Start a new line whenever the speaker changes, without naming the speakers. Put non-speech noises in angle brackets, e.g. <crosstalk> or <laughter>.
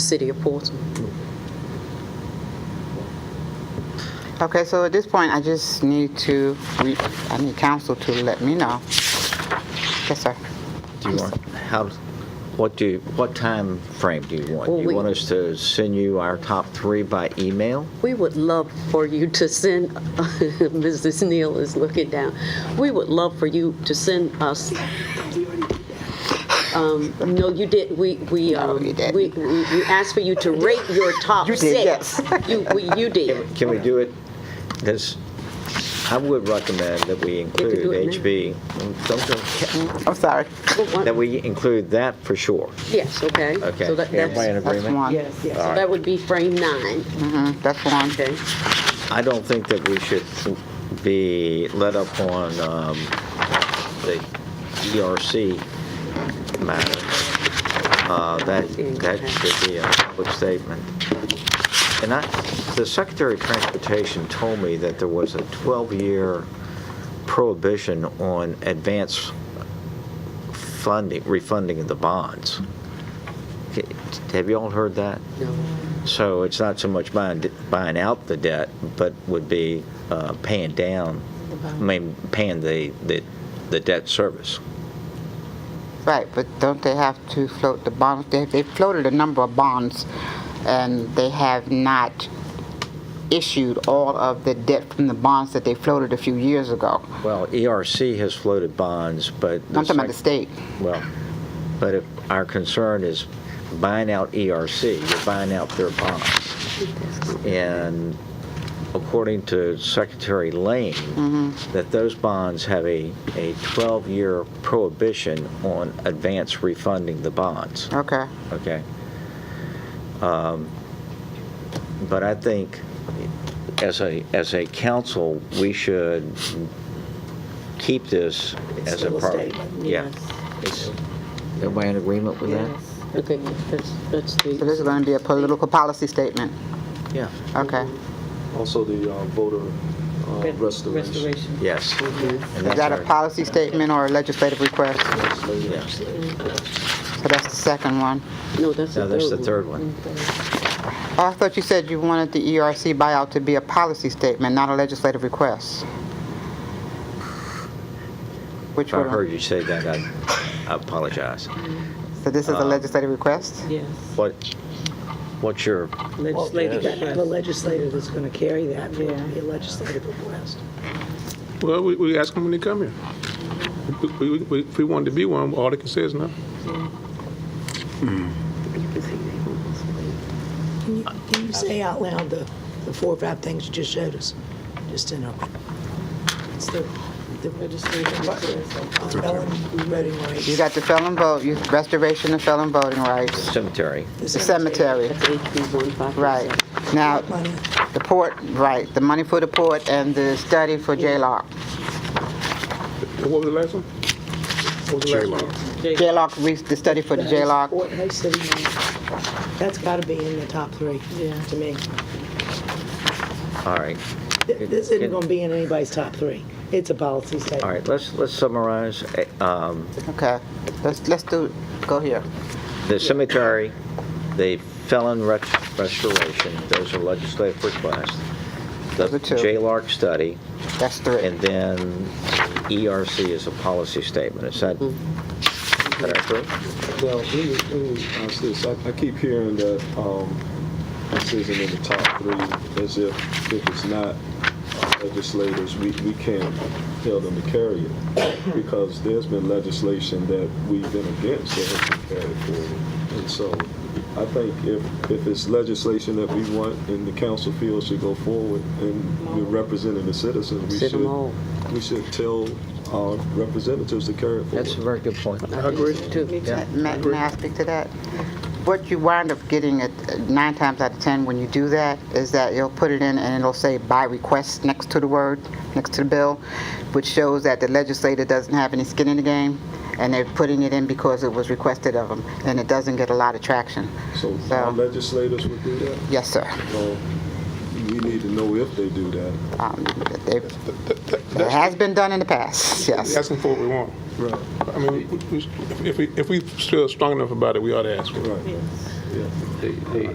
city of Portsmouth.
Okay, so at this point, I just need to, re- I need council to let me know. Yes, sir.
Do you want, how, what do, what time frame do you want?
Well,
Do
we-
you want us to send you our top three by email?
We would love for you to send, <laughs> Mrs. Neal is looking down, we would love for you to send us. Um, No, you did, we, we,
No,
um,
you didn't.
we, we we asked for you to rate your top
You
six.
did, yes.
You, we- you did.
Can we do it? Because I would recommend that we
do
include
it now.
HB, don't go-
I'm sorry.
that we include that for sure.
Yes, okay.
Okay.
So that,
Everybody in
that's,
That's
agreement?
one.
Yes, yes.
so that would be frame nine,
Mhm, That's one.
okay?
I don't think that we should be let up on um, the ERC matter. Uh, That, that should be a public statement. And I, the Secretary of Transportation told me that there was a 12-year prohibition on advance funding, refunding of the bonds. Have you all heard that?
No.
So it's not so much buying, buying out the debt, but would be uh, paying down, I mean, paying the, the, the debt service.
Right, but don't they have to float the bonds? They, they floated a number of bonds, and they have not issued all of the debt from the bonds that they floated a few years ago.
Well, ERC has floated bonds, but.
I'm talking about the state.
Well, but if our concern is buying out ERC, you're buying out their bonds. And according to Secretary Lane, that those bonds have a, a 12-year prohibition on advance refunding the bonds.
Okay.
Okay. Um, But I think, as a, as a council, we should keep this as a
Still a
part.
statement,
Yeah. Is Everybody in agreement with that?
Yes.
Okay, that's, that's
So this
the,
is going to be a political policy statement.
Yeah.
Okay.
Also the uh, voter uh, restoration.
Yes. And
Is
that's
that a
our-
policy statement or a legislative request?
Yes.
So that's the second one.
no, that's the
No,
third one.
that's the third one.
Oh, I thought you said you wanted the ERC buyout to be a policy statement, not a legislative request. Which
If I
one?
heard you say that, I I apologize.
So this
Uh,
is a legislative
Mm,
request?
Yes.
What, what's your,
Legislative. The legislator that's going to carry that, yeah, the legislative request.
Well, we, we ask them when they come here. We, we, we, if we wanted to be one, all they can say is no.
Can you- Can you say out loud the, the four or five things you just showed us? Just in a, it's the, the legislative request. Ellen Reading Rice.
You got the felon vote, you- restoration of felon voting rights,
cemetery?
the cemetery,
That's HB one five.
right. Now,
Money.
the port, right, the money for the port and the study for J-Lock.
What was the last one? What was the last one?
J-Lock, re- the study for the J-Lock.
Fort Hays City Mall. That's got to be in the top three, to me.
All right.
Th- This isn't going to be in anybody's top three. It's a policy statement.
All right, let's, let's summarize. eh, um,
Okay, let's, let's do, go here.
The cemetery, the felon ret- restoration, those are legislative requests. The
Those are two.
J-Lark study,
That's three.
and then ERC is a policy statement. Is that Mm-hmm. correct?
Well, let me- let me ask this. I I keep hearing that um, this isn't in the top three, as if if it's not uh, legislators, we we can't tell them to carry it, because there's been legislation that we've been against that has been carried forward. And so I think if if it's legislation that we want and the council feels should go forward, and we're representing the citizens, we
Sit 'em all.
should, we should tell our representatives to carry it forward.
That's a very good point.
I agree. Too.
May may I speak to that? What you wind up getting at, uh, nine times out of 10 when you do that, is that you'll put it in and it'll say by request next to the word, next to the bill, which shows that the legislator doesn't have any skin in the game, and they're putting it in because it was requested of them, and it doesn't get a lot of traction.
So um,
So-
our legislators would do that?
Yes, sir.
Well, we need to know if they do that.
Um, they- It has been done in the past, yes.
Ask them for what we want.
Right.
I mean, we- we- if we, if we feel strong enough about it, we ought to ask for it.
Right.
Yeah.
They- they-